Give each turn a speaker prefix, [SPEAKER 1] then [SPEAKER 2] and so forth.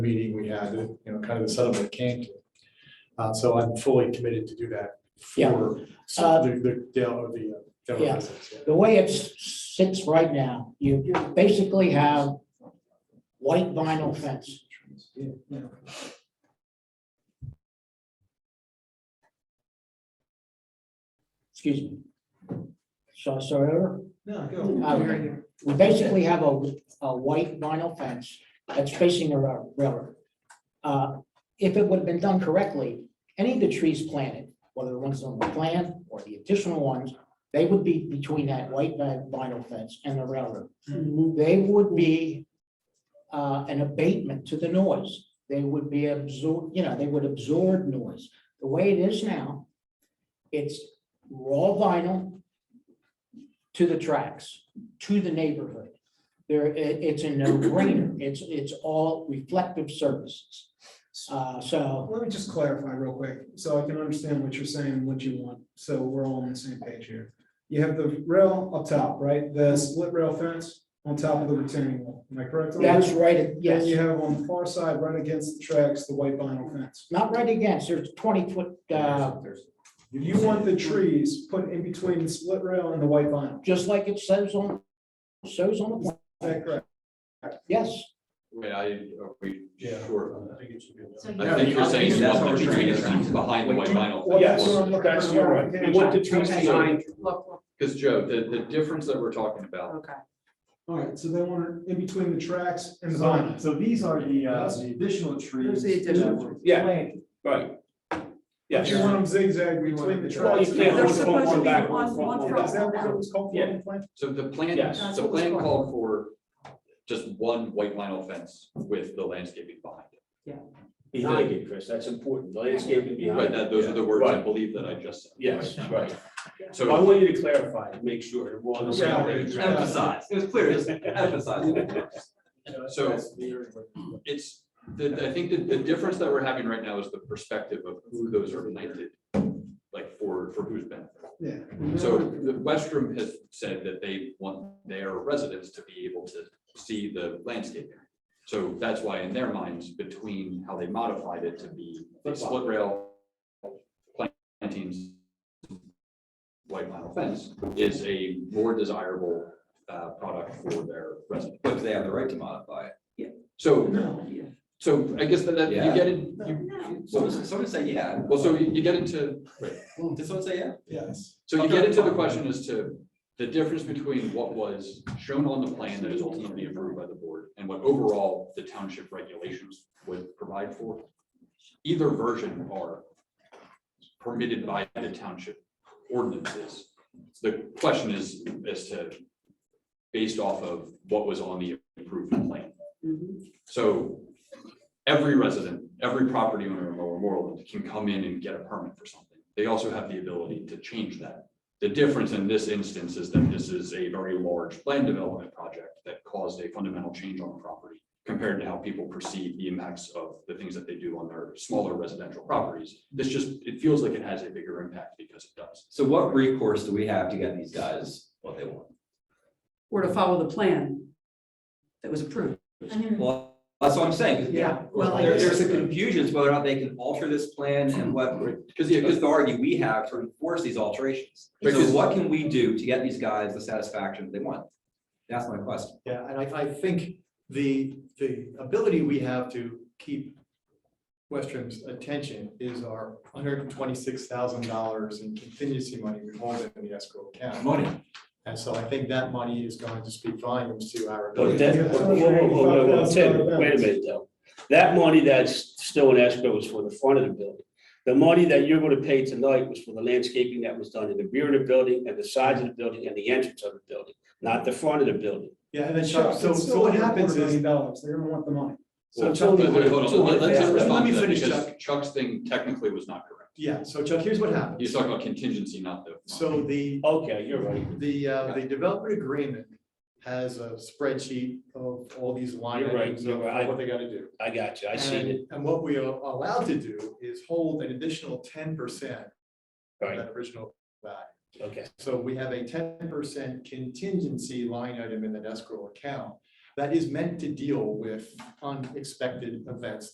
[SPEAKER 1] had, you know, kind of the setup that came to. Uh, so I'm fully committed to do that
[SPEAKER 2] Yeah.
[SPEAKER 1] for
[SPEAKER 2] Uh,
[SPEAKER 1] the, the, the, uh, the. uh, demo
[SPEAKER 2] Yeah.
[SPEAKER 1] residents, yeah.
[SPEAKER 2] The way it sits right now, you basically have white vinyl fence. Excuse me. So, sorry, Eric?
[SPEAKER 3] No,
[SPEAKER 2] Uh,
[SPEAKER 3] go.
[SPEAKER 2] We basically have a, a white vinyl fence that's facing the ra- railroad. Uh, If it would have been done correctly, any of the trees planted, whether the ones on the plan or the additional ones, they would be between that white vi- vinyl fence and the railroad. They would be uh, an abatement to the noise. They would be absorb, you know, they would absorb noise. The way it is now, it's raw vinyl to the tracks to the neighborhood. There, i- it's a no-brainer. It's, it's all reflective services. Uh, so,
[SPEAKER 3] Let me just clarify real quick, so I can understand what you're saying, and what you want, so we're all on the same page here. You have the rail up top, right, the split rail fence on top of the retaining wall, am I correct? on that?
[SPEAKER 2] that's right, at-
[SPEAKER 3] Then
[SPEAKER 2] yes,
[SPEAKER 3] you have on the far side, right against the tracks, the white vinyl fence.
[SPEAKER 2] not right against, there's twenty-foot, uh,
[SPEAKER 3] You want the trees put in between the split rail and the white vinyl, is
[SPEAKER 2] just like it says on, shows on the, plan.
[SPEAKER 3] that correct?
[SPEAKER 2] yes,
[SPEAKER 4] Wait, I, are we
[SPEAKER 1] Yeah.
[SPEAKER 4] sure? about
[SPEAKER 1] I think it should be.
[SPEAKER 5] So
[SPEAKER 4] that? I think you're saying you want the tree that's behind the white vinyl.
[SPEAKER 1] Oh, Yes,
[SPEAKER 3] that's
[SPEAKER 1] you're right.
[SPEAKER 6] You want the trees
[SPEAKER 5] Okay.
[SPEAKER 6] behind,
[SPEAKER 5] Look, look,
[SPEAKER 4] Because Joe, the, the difference that we're talking about,
[SPEAKER 5] okay.
[SPEAKER 3] All right, so they want it in between the tracks and the
[SPEAKER 7] So,
[SPEAKER 3] vinyl.
[SPEAKER 7] so these are the, uh, the additional trees.
[SPEAKER 6] the additional-
[SPEAKER 7] Yeah, right. Yeah.
[SPEAKER 3] You want them zigzag between the
[SPEAKER 7] Well, you
[SPEAKER 3] tracks.
[SPEAKER 7] can't
[SPEAKER 5] They're
[SPEAKER 7] hold it
[SPEAKER 5] supposed to
[SPEAKER 7] one
[SPEAKER 5] be
[SPEAKER 7] back,
[SPEAKER 5] on
[SPEAKER 7] one front,
[SPEAKER 5] one
[SPEAKER 7] one
[SPEAKER 5] front.
[SPEAKER 7] back.
[SPEAKER 3] Is that what it was called for in the plan?
[SPEAKER 4] so the plan,
[SPEAKER 7] Yes.
[SPEAKER 4] the plan called for just one white vinyl fence with the landscaping behind it.
[SPEAKER 8] He's thinking, Chris, that's important, landscaping behind.
[SPEAKER 4] Right, that, those are the words I
[SPEAKER 8] Right.
[SPEAKER 4] believe that I just said.
[SPEAKER 8] Yes, right. So I
[SPEAKER 4] So,
[SPEAKER 8] want you to clarify, and make sure that we're on the same page.
[SPEAKER 3] Yeah.
[SPEAKER 4] emphasize, it was clear, just emphasize. So it's, the, I think that the difference that we're having right now is the perspective of who those are planted, like for, for whose benefit.
[SPEAKER 3] Yeah.
[SPEAKER 4] So the Westrum has said that they want their residents to be able to see the landscaping. So that's why in their minds, between how they modified it to be a split rail plantings, white vinyl fence is a more desirable uh, product for their residents.
[SPEAKER 9] But they have the right to modify it.
[SPEAKER 4] So,
[SPEAKER 3] No,
[SPEAKER 4] so I guess that, that you
[SPEAKER 9] Yeah.
[SPEAKER 4] get in, you,
[SPEAKER 5] No.
[SPEAKER 9] Someone, someone say, yeah.
[SPEAKER 4] well, so you you get into
[SPEAKER 9] Did someone say, yeah?
[SPEAKER 3] yes.
[SPEAKER 4] So you get into the question as to the difference between what was shown on the plan that is ultimately approved by the board and what overall the township regulations would provide for. Either version are permitted by the township ordinances. The question is, as to, based off of what was on the approved plan. So every resident, every property owner in Lower Moreland can come in and get a permit for something. They also have the ability to change that. The difference in this instance is that this is a very large land development project that caused a fundamental change on the property compared to how people perceive the impacts of the things that they do on their smaller residential properties. This just, it feels like it has a bigger impact because it does.
[SPEAKER 9] So what recourse do we have to get these guys what they want?
[SPEAKER 6] or to follow the plan that was approved.
[SPEAKER 9] Well, that's what I'm saying. 'cause
[SPEAKER 6] Yeah. Well,
[SPEAKER 9] there- There's a confusion as whether or not they can alter this plan and what
[SPEAKER 4] Because, yeah, 'cause-
[SPEAKER 9] authority we have to enforce these alterations. So
[SPEAKER 4] Because-
[SPEAKER 9] what can we do to get these guys the satisfaction they want? That's my question.
[SPEAKER 7] Yeah, and I, I think the, the ability we have to keep Westrum's attention is our hundred and twenty-six thousand dollars in contingency money we hold in the escrow account.
[SPEAKER 4] money.
[SPEAKER 7] And so I think that money is going to speak volumes to our.
[SPEAKER 8] But
[SPEAKER 7] ability.
[SPEAKER 8] that, whoa, whoa, whoa, whoa, whoa, Tim, wait a minute though. That money that's still in escrow is for the front of the building. The money that you're gonna pay tonight was for the landscaping that was done in the rear of the building and the sides of the building and the entrance of the building, not the front of the building.
[SPEAKER 7] Yeah, and then
[SPEAKER 3] Chuck,
[SPEAKER 7] Chuck, so,
[SPEAKER 3] it's
[SPEAKER 7] so
[SPEAKER 3] still
[SPEAKER 7] what
[SPEAKER 3] a
[SPEAKER 7] happens
[SPEAKER 3] quarter
[SPEAKER 7] is,
[SPEAKER 3] million dollars, they're gonna want the money.
[SPEAKER 7] so
[SPEAKER 4] But-
[SPEAKER 7] Chuck.
[SPEAKER 4] but hold on, let- let's
[SPEAKER 7] Let
[SPEAKER 4] respond
[SPEAKER 7] me
[SPEAKER 4] to that,
[SPEAKER 7] finish,
[SPEAKER 4] because
[SPEAKER 7] Chuck.
[SPEAKER 4] Chuck's thing technically was not correct.
[SPEAKER 7] Yeah, so Chuck, here's what happens.
[SPEAKER 4] He's talking about contingency, not the.
[SPEAKER 7] So the,
[SPEAKER 8] Okay, you're right.
[SPEAKER 7] The, uh, the development agreement has a spreadsheet of all these line
[SPEAKER 8] You're right,
[SPEAKER 7] items of
[SPEAKER 8] you're right.
[SPEAKER 7] what they gotta do.
[SPEAKER 8] I got you. I seen it.
[SPEAKER 7] And- And what we are allowed to do is hold an additional ten percent of
[SPEAKER 8] Right,
[SPEAKER 7] that original value.
[SPEAKER 8] okay.
[SPEAKER 7] So we have a ten percent contingency line item in the escrow account that is meant to deal with unexpected events